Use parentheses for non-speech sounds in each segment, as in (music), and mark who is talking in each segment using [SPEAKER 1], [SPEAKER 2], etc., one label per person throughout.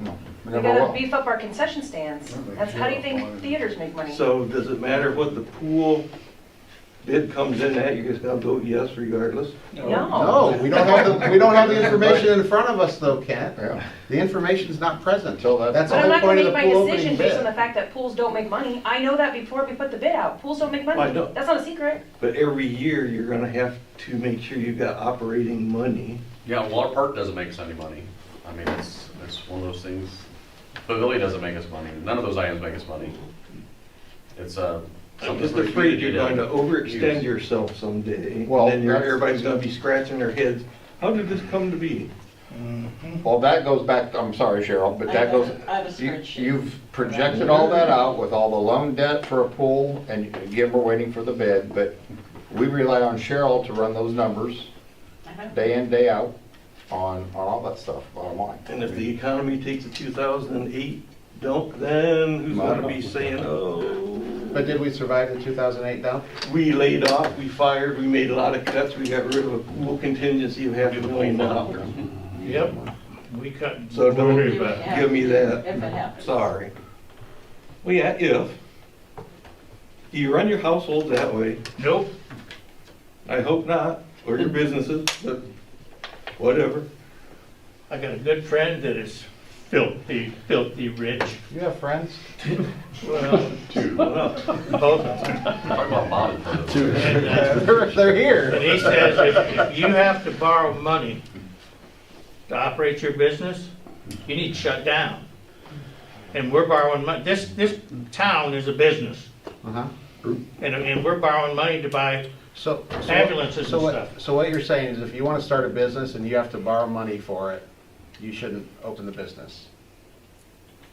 [SPEAKER 1] We
[SPEAKER 2] We
[SPEAKER 1] never
[SPEAKER 2] gotta
[SPEAKER 1] will.
[SPEAKER 2] beef up our concession stands.
[SPEAKER 1] Yeah, make
[SPEAKER 2] That's, how do you
[SPEAKER 1] sure
[SPEAKER 2] think
[SPEAKER 1] it's-
[SPEAKER 2] theaters make money?
[SPEAKER 3] So does it matter what the pool bid comes in at, you guys gotta vote yes regardless?
[SPEAKER 2] No.
[SPEAKER 4] No, we don't have the, we don't have the information in front of us though, Kent.
[SPEAKER 1] Yeah,
[SPEAKER 4] The information's not present.
[SPEAKER 1] Until that-
[SPEAKER 4] That's
[SPEAKER 2] But
[SPEAKER 4] the
[SPEAKER 2] I'm
[SPEAKER 4] whole
[SPEAKER 2] not
[SPEAKER 4] point
[SPEAKER 2] gonna
[SPEAKER 4] of the
[SPEAKER 2] make my
[SPEAKER 4] pool opening
[SPEAKER 2] decision based on the
[SPEAKER 4] bid.
[SPEAKER 2] fact that pools don't make money. I know that before we put the bid out. Pools don't make
[SPEAKER 3] I
[SPEAKER 2] money.
[SPEAKER 3] know.
[SPEAKER 2] That's not a secret.
[SPEAKER 3] But every year, you're gonna have to make sure you've got operating money.
[SPEAKER 5] Yeah, Water Park doesn't make us any money. I mean, it's, it's one of those things, Pavilion doesn't make us money, none of those items make us money. It's, uh.
[SPEAKER 3] I'm
[SPEAKER 5] something
[SPEAKER 3] just
[SPEAKER 5] for you
[SPEAKER 3] afraid
[SPEAKER 5] to
[SPEAKER 3] you're
[SPEAKER 5] do.
[SPEAKER 3] going to overextend
[SPEAKER 5] Use.
[SPEAKER 3] yourself someday, and
[SPEAKER 1] Well,
[SPEAKER 3] then you're-
[SPEAKER 1] that's-
[SPEAKER 3] everybody's gonna be scratching their heads, how did this come to be?
[SPEAKER 1] well, that goes back, I'm sorry Cheryl, but
[SPEAKER 6] I
[SPEAKER 1] that
[SPEAKER 6] have
[SPEAKER 1] goes,
[SPEAKER 6] a- I have a
[SPEAKER 1] you-
[SPEAKER 6] spreadsheet.
[SPEAKER 1] you've projected all that out with all the loan debt for a pool, and again, we're waiting for the bid, but we rely on Cheryl to run those numbers
[SPEAKER 6] Uh-huh.
[SPEAKER 1] day in, day out on, on all that stuff, bottom line.
[SPEAKER 3] And if the economy takes a 2008 dump, then who's gonna be saying, oh,
[SPEAKER 4] But did we survive the 2008 dump?
[SPEAKER 3] we laid off, we fired, we made a lot of cuts, we got rid of a pool contingency of half a million dollars.
[SPEAKER 7] Yep, we cut.
[SPEAKER 3] So don't-
[SPEAKER 6] Do
[SPEAKER 7] worry
[SPEAKER 6] it
[SPEAKER 7] about it.
[SPEAKER 6] now.
[SPEAKER 3] Give me that.
[SPEAKER 6] If it happens.
[SPEAKER 3] Sorry. Well, yeah, if. You run your household that way.
[SPEAKER 7] Nope,
[SPEAKER 3] I hope not, or your businesses, but whatever.
[SPEAKER 7] I got a good friend that is filthy, filthy rich.
[SPEAKER 4] You have friends?
[SPEAKER 7] Well,
[SPEAKER 3] Well,
[SPEAKER 7] both of them.
[SPEAKER 5] Talk about Bobby for those.
[SPEAKER 7] And, uh,
[SPEAKER 4] They're, they're
[SPEAKER 7] And
[SPEAKER 4] here.
[SPEAKER 7] he says, if if you have to borrow money to operate your business, you need to shut down. And we're borrowing money, this, this town is a business,
[SPEAKER 4] Uh-huh.
[SPEAKER 7] and, and we're borrowing money to buy
[SPEAKER 4] So. so what-
[SPEAKER 7] ambulances
[SPEAKER 4] So
[SPEAKER 7] and
[SPEAKER 4] what,
[SPEAKER 7] stuff.
[SPEAKER 4] so what you're saying is if you want to start a business and you have to borrow money for it, you shouldn't open the business,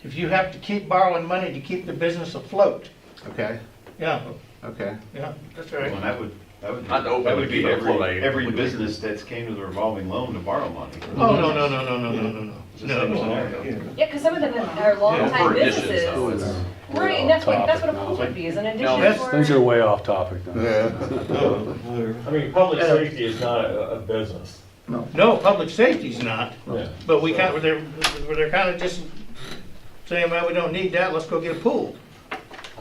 [SPEAKER 7] If you have to keep borrowing money to keep the business afloat,
[SPEAKER 4] okay?
[SPEAKER 7] yeah,
[SPEAKER 4] Okay.
[SPEAKER 7] yeah, that's
[SPEAKER 8] Well,
[SPEAKER 7] right.
[SPEAKER 8] that would, that would.
[SPEAKER 5] Not to open,
[SPEAKER 8] That
[SPEAKER 5] but
[SPEAKER 8] would be
[SPEAKER 5] keep it afloat, I
[SPEAKER 8] every, every
[SPEAKER 5] completely
[SPEAKER 8] business that's came to the revolving loan to borrow money.
[SPEAKER 7] Oh, no, no, no, no, no, no, no, no.
[SPEAKER 8] It's the
[SPEAKER 7] no,
[SPEAKER 8] same
[SPEAKER 7] no.
[SPEAKER 8] scenario.
[SPEAKER 3] yeah.
[SPEAKER 2] Yeah, because some of them are
[SPEAKER 5] For
[SPEAKER 2] longtime
[SPEAKER 5] additions,
[SPEAKER 2] businesses.
[SPEAKER 5] though, it's-
[SPEAKER 2] Right, and that's what, that's what a pool would be, is an addition
[SPEAKER 7] that's-
[SPEAKER 2] for.
[SPEAKER 9] Things are way off topic now.
[SPEAKER 3] no, Oh, whatever.
[SPEAKER 10] I mean, public safety is not a, a business.
[SPEAKER 7] No, public safety's not, but we kind, they're, they're kind of just saying, well, we don't need that, let's go get a pool.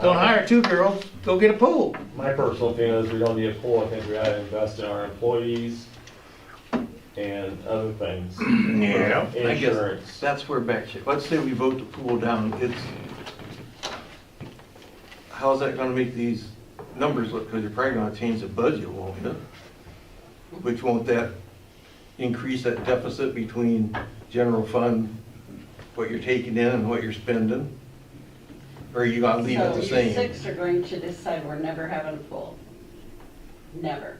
[SPEAKER 7] Don't
[SPEAKER 8] Uh-huh.
[SPEAKER 7] hire two girls, go get a pool.
[SPEAKER 10] My personal feeling is we don't need a pool, I think we ought to invest in our employees and other things.
[SPEAKER 7] Yeah.
[SPEAKER 3] I guess
[SPEAKER 10] Insurance.
[SPEAKER 3] that's where back shit. Let's say we vote the pool down, it's, how's that gonna make these numbers look? Because you're probably gonna change the budget, won't you? Which won't that increase that deficit between general fund, what you're taking in and what you're spending? Or are you gonna leave it
[SPEAKER 6] So
[SPEAKER 3] the same?
[SPEAKER 6] you six are going to decide we're never having a pool. Never.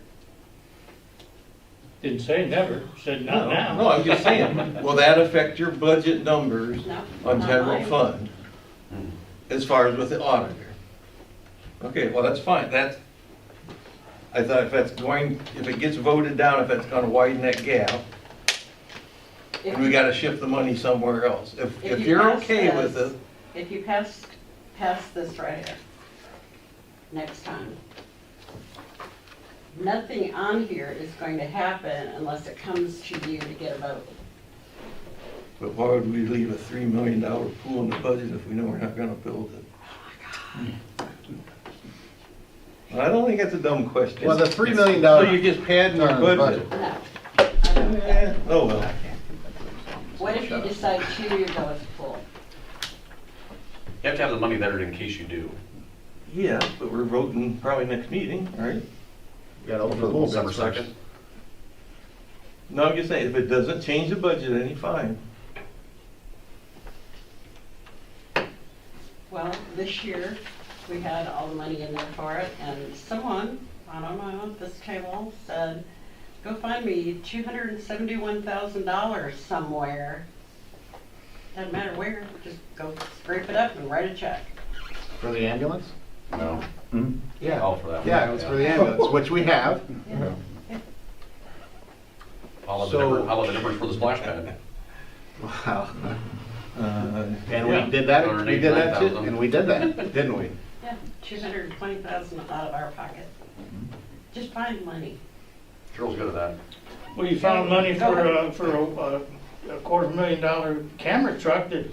[SPEAKER 7] Didn't say never, said
[SPEAKER 3] No,
[SPEAKER 7] not
[SPEAKER 3] no,
[SPEAKER 7] now.
[SPEAKER 3] I'm just saying, will that affect your budget numbers
[SPEAKER 6] No.
[SPEAKER 3] on
[SPEAKER 6] not
[SPEAKER 3] general
[SPEAKER 6] mine.
[SPEAKER 3] fund,
[SPEAKER 4] Hmm.
[SPEAKER 3] as far as with the auditor. Okay, well, that's fine, that's, I thought if that's going, if it gets voted down, if that's gonna widen that gap,
[SPEAKER 6] If
[SPEAKER 3] and we
[SPEAKER 6] you-
[SPEAKER 3] gotta shift the money somewhere else. If,
[SPEAKER 6] If
[SPEAKER 3] if
[SPEAKER 6] you
[SPEAKER 3] you're
[SPEAKER 6] pass
[SPEAKER 3] okay with
[SPEAKER 6] this-
[SPEAKER 3] it,
[SPEAKER 6] If you pass, pass this right here, next time. Nothing on here is going to happen unless it comes to you to get a vote.
[SPEAKER 3] but why would we leave a three million dollar pool in the budget if we know we're not gonna build it?
[SPEAKER 6] Oh,
[SPEAKER 3] I don't think that's a dumb question.
[SPEAKER 4] Well, the $3 million.
[SPEAKER 3] So you're just padding our
[SPEAKER 4] No, the
[SPEAKER 3] budget?
[SPEAKER 6] No. I don't think
[SPEAKER 3] Eh,
[SPEAKER 6] that-
[SPEAKER 3] Oh, well.
[SPEAKER 6] What if you decide two years ago it's a pool?
[SPEAKER 5] You have to have the money there in case you do.
[SPEAKER 3] Yeah, but we're voting probably next meeting, right?
[SPEAKER 4] You gotta open the pool
[SPEAKER 5] December
[SPEAKER 4] business first.
[SPEAKER 5] 2nd.
[SPEAKER 3] No, I'm just saying, if it doesn't change the budget any, fine.
[SPEAKER 6] Well, this year, we had all the money in there for it, and someone, I don't know, at this table said, go find me two hundred and seventy-one thousand dollars somewhere. Doesn't matter where, just go scrape it up and write a check.
[SPEAKER 4] For the ambulance?
[SPEAKER 5] No,
[SPEAKER 4] Yeah.
[SPEAKER 5] all for that. one.
[SPEAKER 4] Yeah, it was for the ambulance, which we have. (laughs)
[SPEAKER 5] All of the
[SPEAKER 4] So-
[SPEAKER 5] difference, all of the difference for the splash pad.
[SPEAKER 4] Wow.
[SPEAKER 3] Uh,
[SPEAKER 4] And
[SPEAKER 7] Yeah.
[SPEAKER 4] we did that, we did that too,
[SPEAKER 5] 189,000.
[SPEAKER 4] and we did that, didn't we?
[SPEAKER 6] Yeah, two hundred and twenty thousand out of our pocket. Just find money.
[SPEAKER 5] Cheryl's good at that.
[SPEAKER 7] Well, you found money for, uh, for a- a a quarter million dollar camera truck that